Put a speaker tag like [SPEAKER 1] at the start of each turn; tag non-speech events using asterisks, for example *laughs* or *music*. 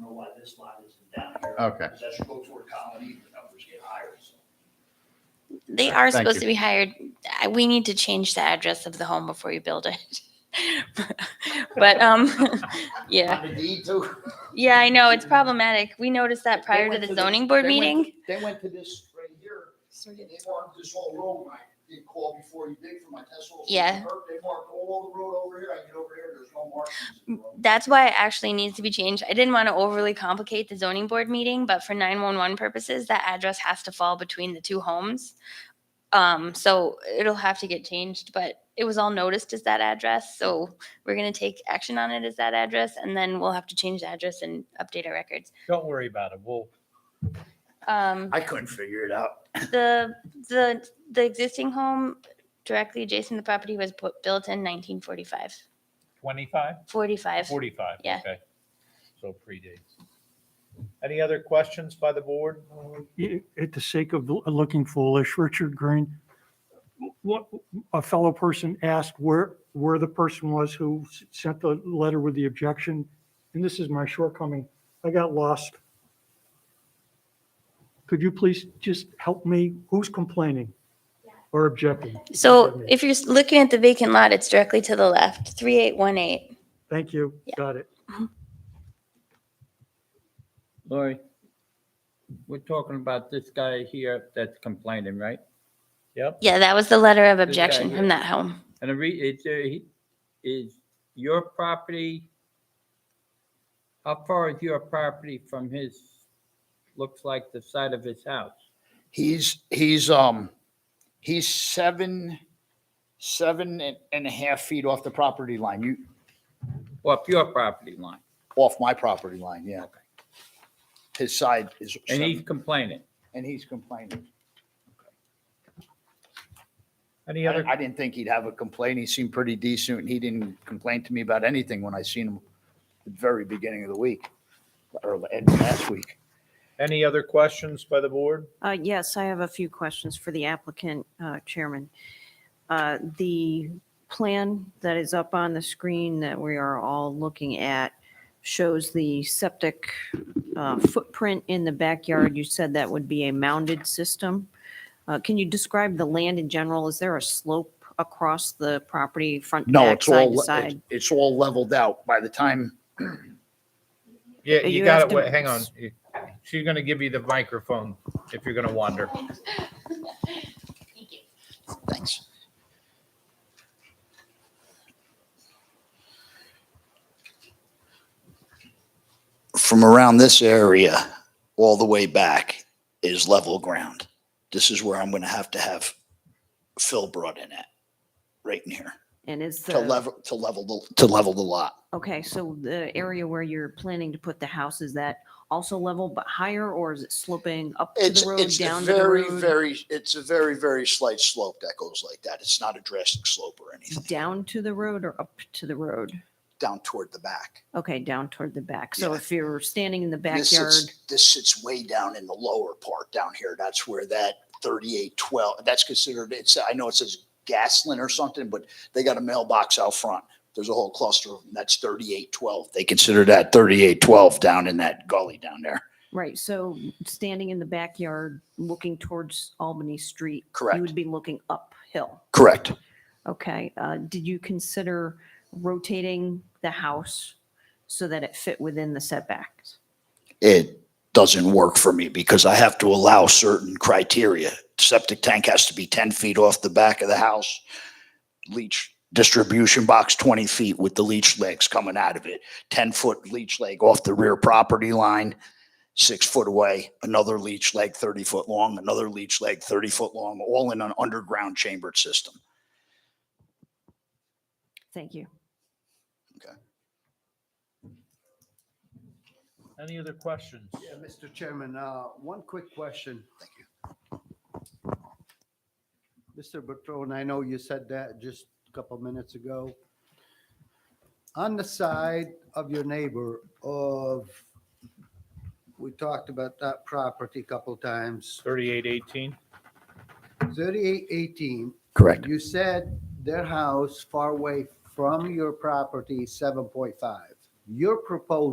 [SPEAKER 1] know why this lot isn't down here.
[SPEAKER 2] Okay.
[SPEAKER 1] Because that's Rosewood Colony, the numbers get higher, so.
[SPEAKER 3] They are
[SPEAKER 2] Thank
[SPEAKER 3] supposed
[SPEAKER 2] you.
[SPEAKER 3] to be hired. I- We need to change the address of the home before you build it. *laughs* But, um, *laughs* yeah,
[SPEAKER 1] On the deed too.
[SPEAKER 3] yeah, I know, it's problematic. We noticed that prior
[SPEAKER 1] They
[SPEAKER 3] to
[SPEAKER 1] went
[SPEAKER 3] the
[SPEAKER 1] this-
[SPEAKER 3] zoning board
[SPEAKER 1] they went
[SPEAKER 3] meeting.
[SPEAKER 1] to- They went to this right here, and they marked this whole road, and I did call before you dig for my test holes.
[SPEAKER 3] Yeah.
[SPEAKER 1] They marked all the road over here, I get over here, there's no markings in the road.
[SPEAKER 3] That's why it actually needs to be changed. I didn't want to overly complicate the zoning board meeting, but for nine-one-one purposes, that address has to fall between the two homes. Um, so it'll have to get changed, but it was all noticed as that address, so we're gonna take action on it as that address, and then we'll have to change the address and update our records.
[SPEAKER 4] Don't worry about it. We'll,
[SPEAKER 3] Um,
[SPEAKER 1] I couldn't figure it out. *laughs*
[SPEAKER 3] the, the, the existing home directly adjacent to the property was bu- built in 1945,
[SPEAKER 4] 25,
[SPEAKER 3] 45.
[SPEAKER 4] 45,
[SPEAKER 3] Yeah.
[SPEAKER 4] okay. So predates. Any other questions by the board?
[SPEAKER 5] i- at the sake of l- looking foolish, Richard Green, what, a fellow person asked where, where the person was who s- sent the letter with the objection, and this is my shortcoming, I got lost. Could you please just help me? Who's complaining or objecting?
[SPEAKER 3] So if you're s- looking at the vacant lot, it's directly to the left, 3818.
[SPEAKER 5] Thank you, got it.
[SPEAKER 6] Lori, we're talking about this guy here that's complaining, right?
[SPEAKER 4] Yep,
[SPEAKER 3] Yeah, that was the letter of
[SPEAKER 6] guy
[SPEAKER 3] objection from
[SPEAKER 6] here.
[SPEAKER 3] that home.
[SPEAKER 6] And the re, it's, uh, he, is your property, how far is your property from his, looks like the side of his house?
[SPEAKER 1] He's, he's, um, he's seven, seven and- and a half feet off the property line, you,
[SPEAKER 6] Off your property line,
[SPEAKER 1] off my property line, yeah. His side is,
[SPEAKER 6] and he's
[SPEAKER 1] seven,
[SPEAKER 6] complaining.
[SPEAKER 1] and he's complaining.
[SPEAKER 4] any
[SPEAKER 1] I
[SPEAKER 4] other,
[SPEAKER 1] I didn't think he'd have a complaint, he seemed pretty decent, and he didn't complain to me about anything when I seen him at the very beginning of the week, or la- last week.
[SPEAKER 4] any other questions by the board?
[SPEAKER 7] Uh, Yes, I have a few questions for the applicant, uh, Chairman. Uh, The plan that is up on the screen that we are all looking at shows the septic uh, footprint in the backyard. You said that would be a mounded system. Uh, Can you describe the land in general? Is there a slope across the property, front,
[SPEAKER 1] No,
[SPEAKER 7] back,
[SPEAKER 1] it's
[SPEAKER 7] side to
[SPEAKER 1] all, it's-
[SPEAKER 7] side?
[SPEAKER 1] it's all leveled out by the time,
[SPEAKER 4] Yeah,
[SPEAKER 7] You
[SPEAKER 4] you got
[SPEAKER 7] have
[SPEAKER 4] it.
[SPEAKER 7] to-
[SPEAKER 4] Wait, Hang on. She's going to give you the microphone if you're going to wander.
[SPEAKER 1] thanks. From around this area, all the way back is level ground. This is where I'm gonna have to have Phil brought in at, right in here.
[SPEAKER 7] And is
[SPEAKER 1] to
[SPEAKER 7] the,
[SPEAKER 1] level, to level, the to level the lot.
[SPEAKER 7] okay, so the area where you're planning to put the house, is that also level but higher, or is it sloping up to
[SPEAKER 1] It's,
[SPEAKER 7] the road,
[SPEAKER 1] it's a
[SPEAKER 7] down to the
[SPEAKER 1] very,
[SPEAKER 7] road?
[SPEAKER 1] very, it's a very, very slight slope that goes like that. It's not a drastic slope or anything,
[SPEAKER 7] down to the road or up to the road?
[SPEAKER 1] down toward the back.
[SPEAKER 7] Okay, down toward the back. So
[SPEAKER 1] Yeah.
[SPEAKER 7] if you're standing in the
[SPEAKER 1] This
[SPEAKER 7] backyard,
[SPEAKER 1] sits, this sits way down in the lower part down here. That's where that thirty-eight twelve, that's considered, it's, I know it says Gaslin or something, but they got a mailbox out front. There's a whole cluster of them. That's thirty-eight twelve. They consider that thirty-eight twelve down in that gully down there.
[SPEAKER 7] right, so standing in the backyard, looking towards Albany Street, you
[SPEAKER 1] Correct,
[SPEAKER 7] would be looking uphill.
[SPEAKER 1] correct.
[SPEAKER 7] Okay, uh, did you consider rotating the house so that it fit within the setbacks?
[SPEAKER 1] it doesn't work for me because I have to allow certain criteria. Septic tank has to be ten feet off the back of the house. Leach distribution box twenty feet with the leach legs coming out of it. Ten foot leach leg off the rear property line, six foot away, another leach leg thirty foot long, another leach leg thirty foot long, all in an underground chambered system.
[SPEAKER 7] Thank you.
[SPEAKER 4] Any other questions?
[SPEAKER 8] Yeah, Mr. Chairman, uh, one quick question.
[SPEAKER 1] Thank you.
[SPEAKER 8] Mr. Bertrand, I know you said that just a couple minutes ago. On the side of your neighbor of, we talked about that property a couple times,
[SPEAKER 4] 3818.
[SPEAKER 8] 3818,
[SPEAKER 1] Correct.
[SPEAKER 8] you said their house far away from your property, 7.5. Your proposal